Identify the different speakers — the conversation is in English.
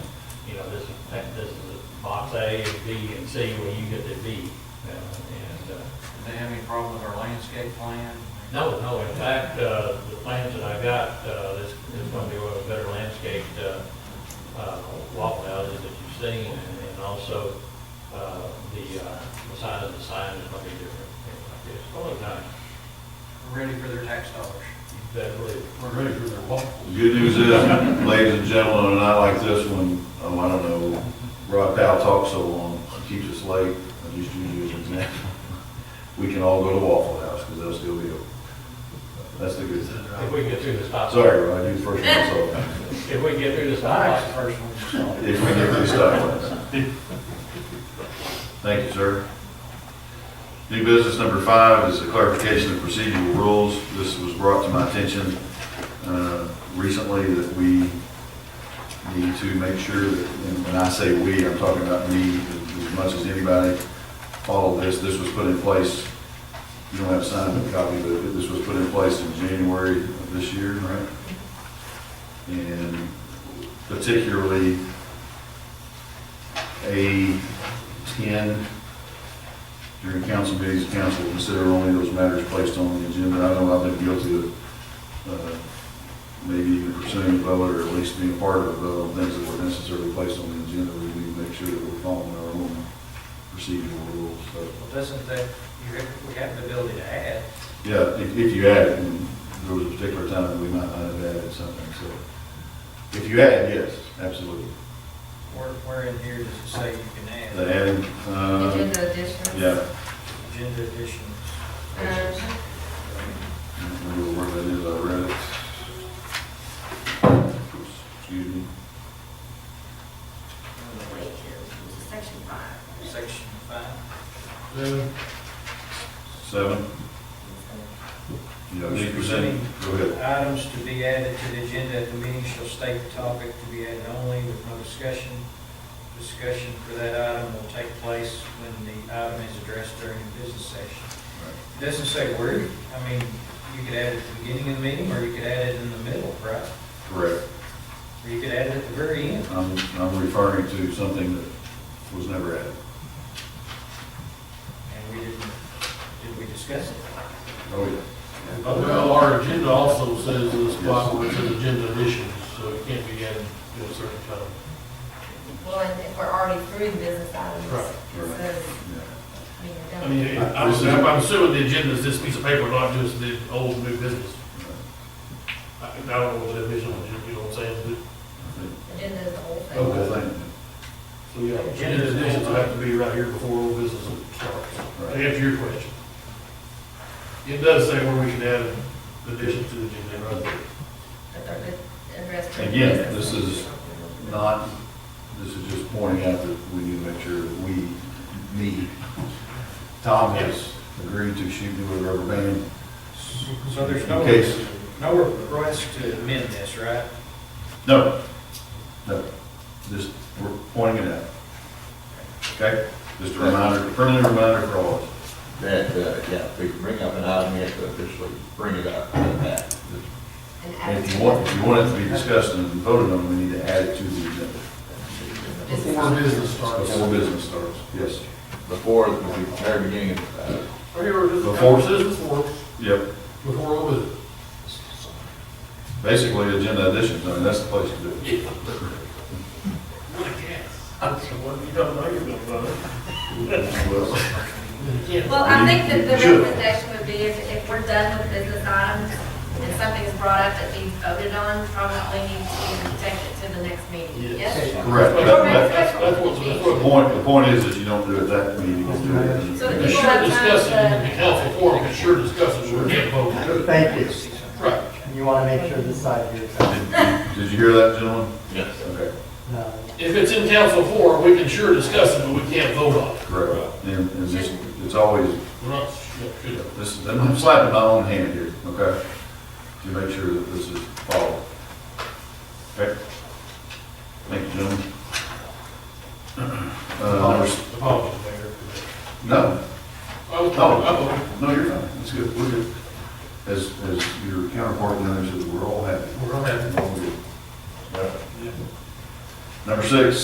Speaker 1: you know, this, that- this is box A and B and C, where you get to B. uh, And, uh,
Speaker 2: Do they have any problem with our landscape plan?
Speaker 1: No, no, in fact, uh, the plans that I got, uh, this is going to be one of the better landscaped uh, uh, walk houses that you've seen, and and also uh, the uh, the size of the sign is going to be different, things like this. It's going to look nice.
Speaker 2: We're Ready for their tax dollars?
Speaker 1: You better believe it.
Speaker 3: We're ready for their walk.
Speaker 4: The Good news is, ladies and gentlemen, and I like this one, oh, I don't know, Rod Powell talks so long, keeps us late, I just use you as an example. We can all go to Waffle House, because they'll still be open. That's the good thing.
Speaker 1: If we can get through the stop.
Speaker 4: Sorry, Rod, you the first one, so,
Speaker 1: If we can get through the stop.
Speaker 2: That's
Speaker 1: sign.
Speaker 2: the first one.
Speaker 4: if we get this stuff. Thank you, sir. New business number five is a clarification of procedural rules. This was brought to my attention uh, recently that we need to make sure that, and when I say we, I'm talking about me as as much as anybody, follow this. This was put in place, you don't have a signed copy, but this was put in place in January of this year, right? And particularly A ten, during council meetings, the council will consider only those matters placed on the agenda. I know I've been guilty of, uh, maybe even pursuing a vote or at least being part of a vote on things that were necessarily placed on the agenda. We need to make sure that we're following our own procedural rules, so.
Speaker 2: Well, doesn't that, you have, we have the ability to add,
Speaker 4: Yeah, if, if you add it, and there was a particular time that we might not have added something, so. If you add, it, yes, absolutely.
Speaker 2: where, where in here does it say you can
Speaker 4: The
Speaker 2: add
Speaker 4: adding, uh,
Speaker 5: Agenda additions.
Speaker 4: yeah,
Speaker 2: agenda additions?
Speaker 5: Um,
Speaker 4: I don't remember where that is, I read it. Excuse me.
Speaker 5: wait, it's Section five.
Speaker 2: Section five?
Speaker 4: Seven, you know, eight percent, go ahead.
Speaker 2: Items to be added to the agenda at the meeting shall state the topic to be added only with no discussion. Discussion for that item will take place when the item is addressed during the business session. It Doesn't say where, I mean, you could add it at the beginning of the meeting, or you could add it in the middle, right?
Speaker 4: Correct.
Speaker 2: Or you could add it at the very end.
Speaker 4: I'm, I'm referring to something that was never added.
Speaker 2: And we didn't, did we discuss it?
Speaker 4: Oh, yeah.
Speaker 3: Well, our agenda also says in this block where it says agenda additions, so it can't be added to a certain time.
Speaker 5: Well, and if we're already through the business items,
Speaker 3: Right,
Speaker 5: it
Speaker 4: right.
Speaker 5: says,
Speaker 4: Yeah.
Speaker 5: I mean,
Speaker 3: I mean,
Speaker 4: I-
Speaker 3: I'm assuming, I'm assuming the agenda is this piece of paper, not just the old new business. I I don't know what that vision was, you know what I'm saying?
Speaker 4: I think
Speaker 5: agenda is the whole
Speaker 4: The whole
Speaker 5: thing.
Speaker 4: thing,
Speaker 3: So, yeah, agenda additions will have to be right here before old business starts. To
Speaker 4: right,
Speaker 3: answer your question. It does say where we can add additions to the agenda, right?
Speaker 5: But they're good, addressed. through the
Speaker 4: Again,
Speaker 5: business.
Speaker 4: this is not, this is just pointing out that we need to make sure that we, me, Tom has agreed to shoot me with a rubber band.
Speaker 2: So there's no,
Speaker 4: In case,
Speaker 2: no request to amend this, right?
Speaker 4: no, no, just, we're pointing it out. Okay? Just a reminder, friendly reminder for all of us.
Speaker 6: That, uh, yeah, if we can bring up an item, we have to officially bring it up at that.
Speaker 5: And
Speaker 4: And if
Speaker 5: add-
Speaker 4: you want, if you want it to be discussed and voted on, we need to add it to the agenda.
Speaker 3: Before business starts.
Speaker 4: Before business starts, yes.
Speaker 6: Before the very beginning of, uh,
Speaker 3: Or you were just-
Speaker 4: Before-
Speaker 3: before,
Speaker 4: Yep,
Speaker 3: before old business.
Speaker 4: basically agenda additions, I mean, that's the place to do it.
Speaker 3: What a guess. That's the one you don't know you're gonna vote.
Speaker 4: Well,
Speaker 5: Well, I think that the
Speaker 4: Sure.
Speaker 5: recommendation would be if, if we're done with business items and something's brought up that needs voted on, probably need to take it to the next meeting. Yes?
Speaker 4: Correct.
Speaker 3: That's-
Speaker 4: That-
Speaker 3: that's-
Speaker 4: that-
Speaker 3: That's that's what, that's
Speaker 4: The
Speaker 3: what.
Speaker 4: point, the point is that you don't do it that meeting.
Speaker 5: So that
Speaker 3: You
Speaker 5: people
Speaker 3: sure
Speaker 5: have
Speaker 3: discuss it in
Speaker 5: time
Speaker 3: the
Speaker 5: to.
Speaker 3: council forum, you sure discuss it, we're getting voted.
Speaker 7: Thank you.
Speaker 3: Right.
Speaker 7: And you want to make sure this side here is up.
Speaker 4: Did you hear that, gentlemen?
Speaker 6: Yes.
Speaker 4: Okay,
Speaker 7: No.
Speaker 3: If it's in council forum, we can sure discuss it, but we can't vote on it.
Speaker 4: correct. And, and this, it's always,
Speaker 3: We're not, yeah, sure.
Speaker 4: this, I'm slapping my own hand here, okay? To make sure that this is followed. Okay? Thank you, gentlemen. Uh, there's-
Speaker 3: Apologies, Mayor.
Speaker 4: no,
Speaker 3: I was, I voted.
Speaker 4: no, you're fine. It's good. We're good. As, as your counterpart in there says, we're all happy.
Speaker 3: We're on that.
Speaker 4: We're all good. Yeah. Number six,